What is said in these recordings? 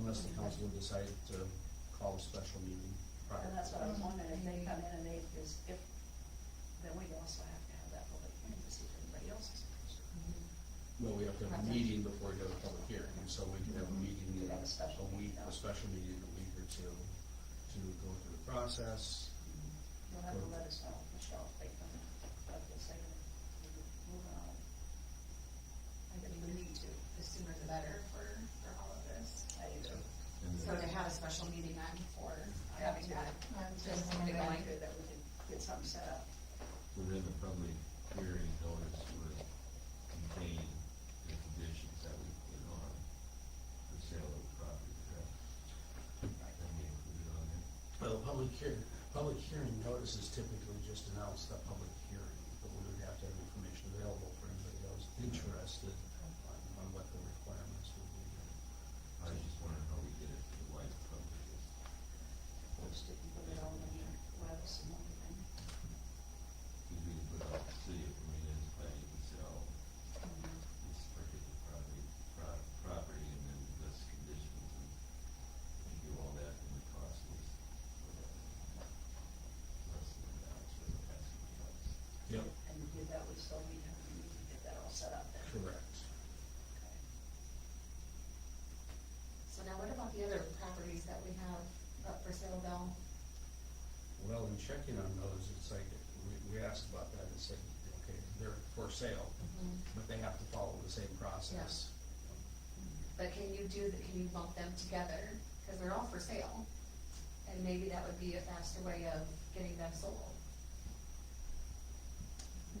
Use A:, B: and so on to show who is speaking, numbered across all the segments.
A: unless the council would decide to call a special meeting prior.
B: And that's what I was wondering, if they come in and they, is, if, then we also have to have that public hearing to see if anybody else is interested.
A: Well, we have to have a meeting before we have a public hearing, so we can have a meeting, in
B: Mm-hmm. We could have a special
A: a week,
B: meeting,
A: a
B: no.
A: special meeting in a week or two to go through the process.
B: You'll have to let us know, Michelle, if they come, in, like they say, we're moving on.
C: I think we need to, the sooner the better for, for all of this.
B: I do.
D: And
C: So to
D: then-
C: have a special meeting on for having that.
E: I'm
B: Just
E: just
B: something
C: something
B: I
C: like-
B: could, that we could get something set up.
D: within the public hearing notice would contain the conditions that we put on the sale of the property, correct? That we included on it.
A: Well, public hear, public hearing notice is typically just announced a public hearing, but we would have to have information available for anybody that was interested on, on what the requirements would be.
D: I was just wondering how we did it for the wide public.
B: Just didn't put it on the webs and everything.
D: Because we could put out the city of Marina as planning to sell this particular property, pro- property and then list conditions and and do all that in the cost list. Less than that, so that's what else.
A: Yep.
B: And to do that, we still need to, we need to get that all set up then.
A: Correct.
B: Okay.
C: So now what about the other properties that we have up for sale, Bill?
A: Well, in checking on those, it's like, we, we asked about that and said, okay, they're for sale, but they have to follow the same process.
C: But can you do, the- can you lump them together? Because they're all for sale. And maybe that would be a faster way of getting them sold.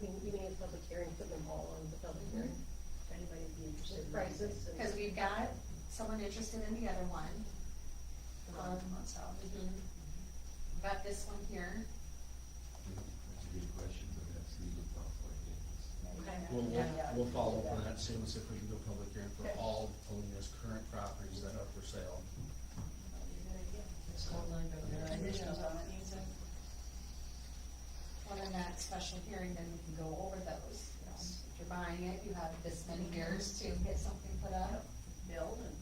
E: We, we need a public hearing, put them all on the public hearing.
B: If anybody would be interested. in
E: Prices and-
C: Because we've got someone interested in the other one.
B: The one that wants out.
C: Mhm. Got this one here.
D: That's a good question, but that's legal counsel, I think.
C: Okay.
A: We'll, we'll,
B: Yeah.
A: we'll follow up on that soon, see if we can do a public hearing for
B: Okay.
A: all Polina's current properties that are for sale.
B: That'd be a good idea.
E: Just hold on, but we're on the
B: Conditions
E: show.
B: on it needs to,
C: Well, in that special hearing, then we can go over those. you know.
B: Yes.
C: If you're buying it, you have this many years to get something put up.
B: build and,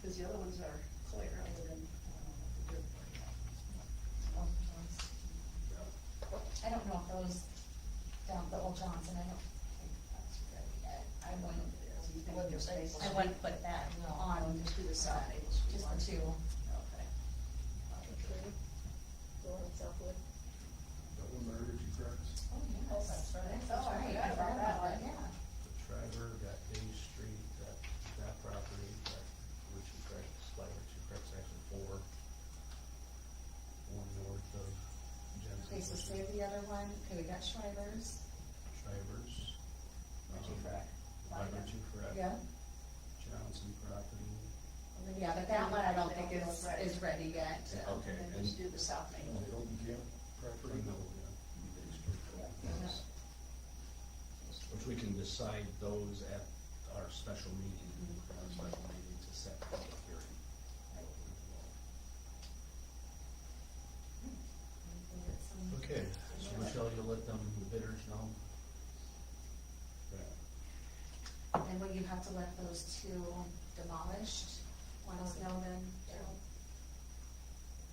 B: because the other ones are clear other than, I don't know, the dirt part.
C: I don't know if those, down the old Johnson, I don't think that's really, I- I wouldn't,
B: So you think you're safe?
C: I wouldn't put that on.
B: Just do the side.
C: Just the two.
B: Okay.
E: Okay. Go on Southwood.
A: That one murdered you, correct?
C: Oh,
B: yes.
C: That's
B: Oh, I
C: right.
B: forgot about that one.
C: Yeah.
A: The Trevor, that A Street, that, that property, that Richard Craig's, like Richard Craig's actually four. One north of
C: Okay, so
A: Jensen's,
C: save the other one. Okay, we got Shivers.
A: Shivers.
B: Richie
A: um,
B: Craig.
A: By Richie Craig.
C: Yeah.
A: Johnson property.
C: Yeah, but that one I don't think is, is ready yet.
A: Okay,
B: And then
A: and-
B: just do the south main.
A: Hilton Camp property? No, yeah. Big Street.
B: Yeah.
A: Which we can decide those at our special meeting,
C: Mm-hmm.
A: our special meeting to set the public hearing. Okay, so Michelle, you'll let them, the bidders know? Yeah.
C: And will you have to let those two demolished, let us know then?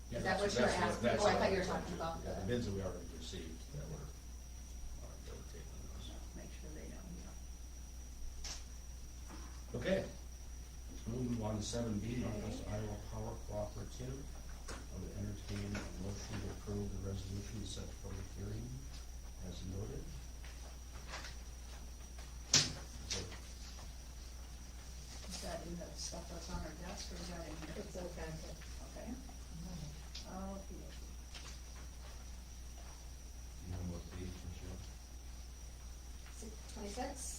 C: Is that what you were
A: That's
C: asking?
A: that's
C: Oh, I thought you were
A: what-
C: talking about
A: Yeah, the
C: the-
A: bids that we already received that were, are, they were taking those.
B: Make sure they know, you know.
A: Okay. Moving on to seven B, Northwest Iowa Power Cooperative. I would entertain a motion to approve the resolution set for the hearing as noted. So,
B: Is that in the stuff that's on our desk or is that in here?
E: It's okay.
B: Okay. Oh,
D: You know what page, Michelle?
C: Twenty-six?